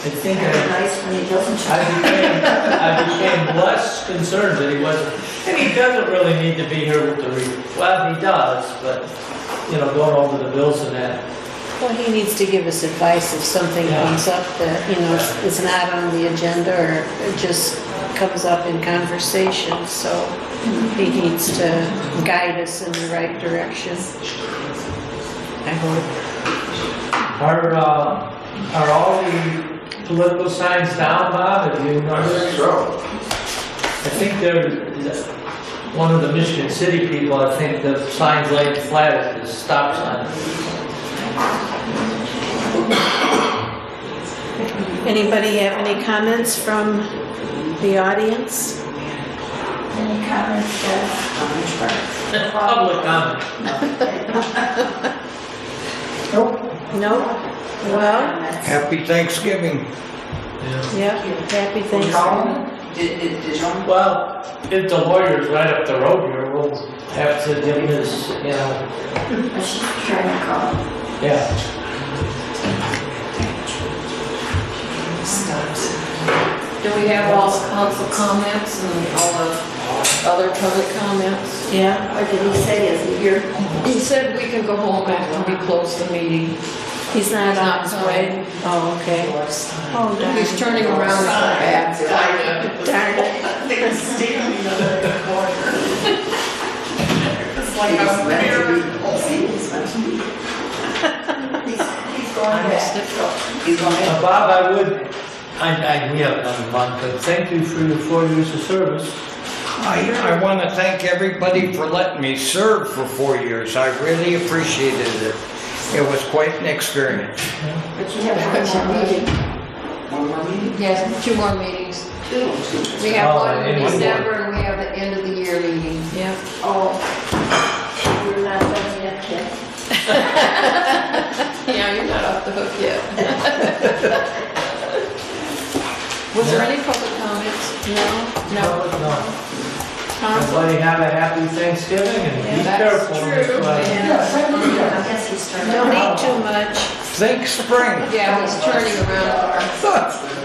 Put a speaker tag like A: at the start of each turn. A: I think
B: Very
A: I,
B: nice when he doesn't.
A: I became, I became less concerned that he wasn't, and he doesn't really need to be here with the, re- well, he does, but, you know, going over the bills and that.
C: Well, he needs to give us advice if something
A: Yeah.
C: comes up that, you know, is- is not on the agenda or it just comes up in conversation, so he needs to guide us in the right direction. I hope.
A: Are, uh, are all the political signs down, Bob? Have you noticed?
D: So,
A: I think there, one of the Michigan City people, I think the sign's laying flat is the stop sign.
C: Anybody have any comments from the audience?
B: Any comments, Jeff?
A: Public comment.
C: No? Well,
E: Happy Thanksgiving.
C: yep, happy Thanksgiving.
B: Did, did, did you?
A: Well, if the lawyer's right up the road here, we'll have to give this, you know,
B: She's trying to call.
A: yeah.
F: Do we have all the council comments and all the other public comments?
C: Yeah,
B: Or did he say, is he here?
F: He said we can go home after we close the meeting.
C: he's not
F: He's
C: on
F: not
C: his way.
F: coming.
C: Oh, okay. Oh, darn.
F: He's turning around and back.
C: Darn it.
B: They're standing in the corner. It's like
G: I'm
B: He's meant to be. He's- He's going back. He's going back.
A: Uh, Bob, I would, I, I, we have another month, but thank you for your four years of service.
E: I, I want to thank everybody for letting me serve for four years. I really appreciated it. It was quite an experience.
B: But you have one more meeting. One more meeting?
F: Yes, two more meetings. We have one in December Oh, and we have the end of the year meeting.
C: Yep.
B: Oh, you're not done yet, kid.
F: Yeah, you're not off the hook yet. Was there any public comments? No? No?
A: No.
F: Tom?
A: Everybody have a happy Thanksgiving and be
F: Yeah, that's
A: careful.
F: true.
A: everybody.
B: I guess he's trying to.
C: Don't eat too much.
E: Think spring.
F: Yeah, he's turning around.